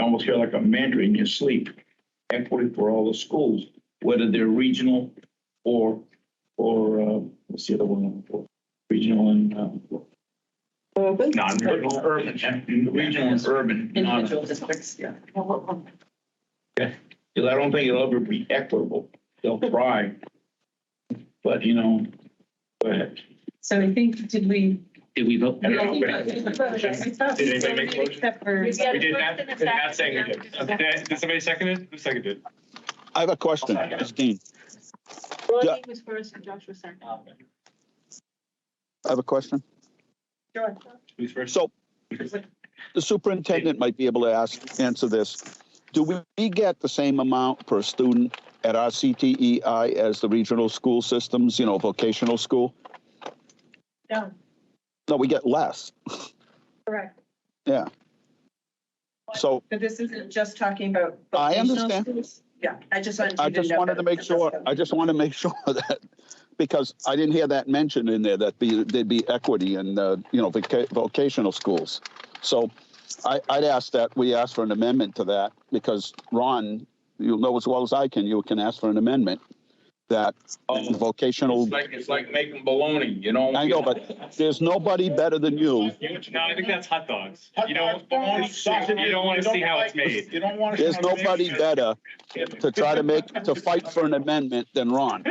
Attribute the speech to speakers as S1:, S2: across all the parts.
S1: almost feel like a mantra in your sleep. Equity for all the schools, whether they're regional or, or, uh, what's the other one? Regional and, uh,
S2: Urban.
S1: non-regional. Urban. Regional and urban. non-
S2: Individual districts, yeah.
S1: Because I don't think it'll ever be equitable. They'll try. But, you know, go ahead.
S2: So I think, did we?
S3: Did we vote?
S1: I don't know, but-
S4: Did
S2: Did
S4: anybody make a motion?
S2: Except for.
S4: We did not, did not second it. Okay, Did somebody second it? Who seconded?
S5: I have a question, Christine. Yeah.
S6: Rodney was first and Josh was second.
S5: I have a question.
S2: Sure.
S4: Who's first?
S5: So the superintendent might be able to ask, answer this. Do we get the same amount per student at our CTEI as the regional school systems, you know, vocational school?
S6: No,
S5: No, we get less.
S6: correct.
S5: So
S2: But this isn't just talking about.
S5: I
S2: vocational
S5: understand.
S2: schools? Yeah, I just wanted.
S5: I
S2: you
S5: just
S2: know
S5: wanted to
S2: that.
S5: make sure, I just want to make sure that, because I didn't hear that mentioned in there, that be, there'd be equity in, uh, you know, voca- vocational schools. So I, I'd ask that, we ask for an amendment to that, because Ron, you'll know as well as I can, you can ask for an amendment that
S1: Oh.
S5: vocational,
S1: It's like, it's like making bologna, you know?
S5: I know, but there's nobody better than you.
S4: No, I think that's hot dogs.
S1: Hot
S4: You don't,
S1: dogs, bologna,
S4: you don't want to see how it's
S1: like-
S4: made.
S1: You don't want to.
S5: There's nobody better to try to make, to fight for an amendment than Ron.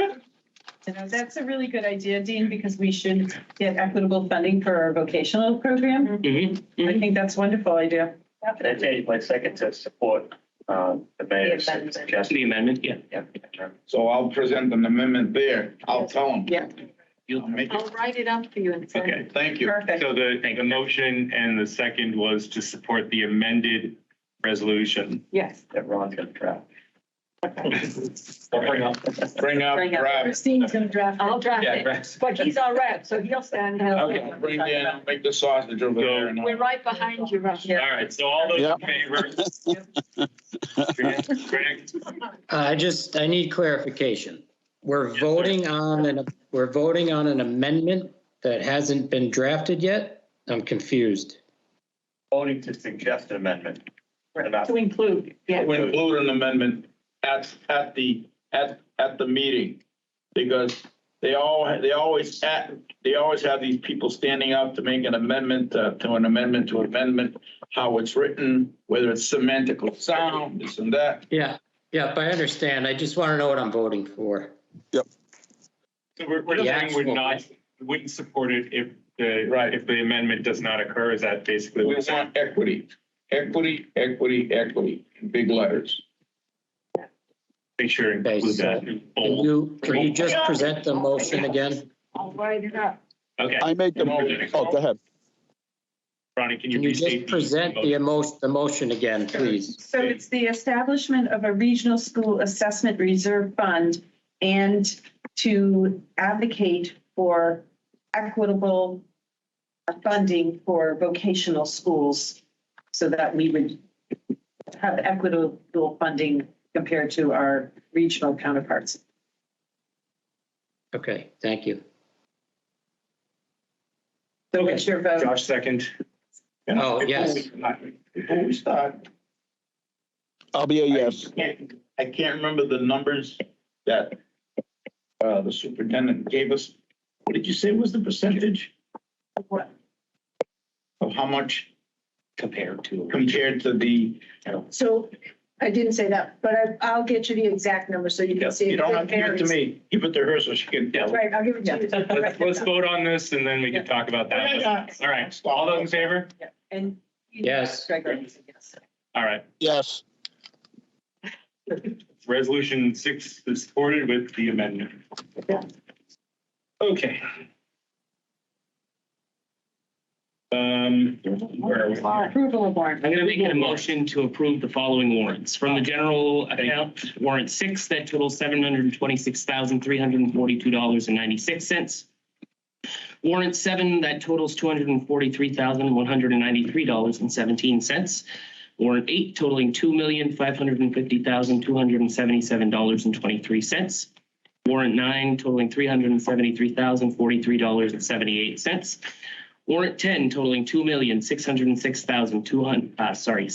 S2: You know, That's a really good idea, Dean, because we should get equitable funding for our vocational program.
S3: Mhm.
S2: I think that's a wonderful idea.
S7: Can I change my second to support um, the mayor's
S6: The amendment.
S7: suggestion?
S3: The amendment, yeah.
S7: Yeah.
S1: So I'll present an amendment there. I'll tell them.
S2: Yeah.
S1: I'll make
S6: I'll
S1: it.
S6: write it up for you and send it.
S4: Okay,
S1: Thank you.
S2: Perfect.
S4: so the, the motion and the second was to support the amended resolution.
S6: Yes.
S7: That Ron's gonna draft.
S4: Bring up.
S1: Bring up,
S2: Bring up-
S1: grab.
S2: Christine's gonna draft. it.
S6: I'll draft
S4: Yeah,
S6: it,
S4: correct.
S6: but he's our rep, so he'll stand.
S1: Okay, bring in, I'll make the sausage over there. and I'll-
S6: We're right behind you, Russ.
S4: All
S2: Yeah.
S4: right, so all those in
S5: Yep.
S4: favor? Greg,
S3: Uh, I just, I need clarification. We're voting on, an we're voting on an amendment that hasn't been drafted yet? I'm confused.
S7: Voting to suggest an amendment. Right.
S6: To include, yeah.
S1: to include an amendment at, at the, at, at the meeting. Because they all, they always, at they always have these people standing up to make an amendment, uh, to an amendment, to amendment, how it's written, whether it's semantical sound, this and that.
S3: Yeah, yeah, I understand. I just want to know what I'm voting for.
S4: So we're, we're
S3: The
S4: saying we're
S3: actual-
S4: not, wouldn't support it if the,
S1: Right.
S4: if the amendment does not occur, is that basically
S1: We
S4: what we're saying?
S1: want equity, equity, equity, equity, in big letters.
S4: Make sure and include
S3: Okay,
S4: that. in
S3: Can
S4: bold.
S3: you, can you just present the motion again?
S6: I'll write it up.
S4: Okay,
S5: I make the, oh, go ahead.
S4: Ronnie, can you
S3: Can you just
S4: restate? the
S3: present the
S4: motion?
S3: emotion, the motion again, please?
S2: So it's the establishment of a regional school assessment reserve fund and to advocate for equitable funding for vocational schools so that we would have equitable funding compared to our regional counterparts.
S3: Okay, thank you.
S2: So what's your vote?
S4: Josh, second.
S1: You know,
S3: Oh,
S1: before
S3: yes.
S1: we start- Before we start.
S5: I'll be a
S1: I
S5: yes.
S1: can't- I can't remember the numbers that uh, the superintendent gave us. What did you say was the percentage? Of how much
S3: Compared to.
S1: compared to the,
S6: So I didn't say that, but I, I'll get you the exact number so you can see.
S1: you don't have to give it to
S6: varies.
S1: me, give it to her so she can tell.
S6: Right, I'll give it to you.
S4: Let's, let's vote on this and then we can talk about that. All right, all those in favor?
S2: Yeah, And.
S3: Yes.
S2: Gregory, yes.
S4: All right,
S5: Yes,
S4: resolution six is supported with the amendment. Okay. Um, where are we?
S2: Approval of warrant.
S8: I'm gonna make a motion to approve the following warrants. From the general account, warrant six, that totals seven hundred and twenty-six thousand, three hundred and forty-two dollars and ninety-six cents. Warrant seven, that totals two hundred and forty-three thousand, one hundred and ninety-three dollars and seventeen cents. Warrant eight totaling two million, five hundred and fifty thousand, two hundred and seventy-seven dollars and twenty-three cents. Warrant nine totaling three hundred and seventy-three thousand, forty-three dollars and seventy-eight cents. Warrant ten totaling two million, six hundred and six thousand, two hundred, uh, sorry,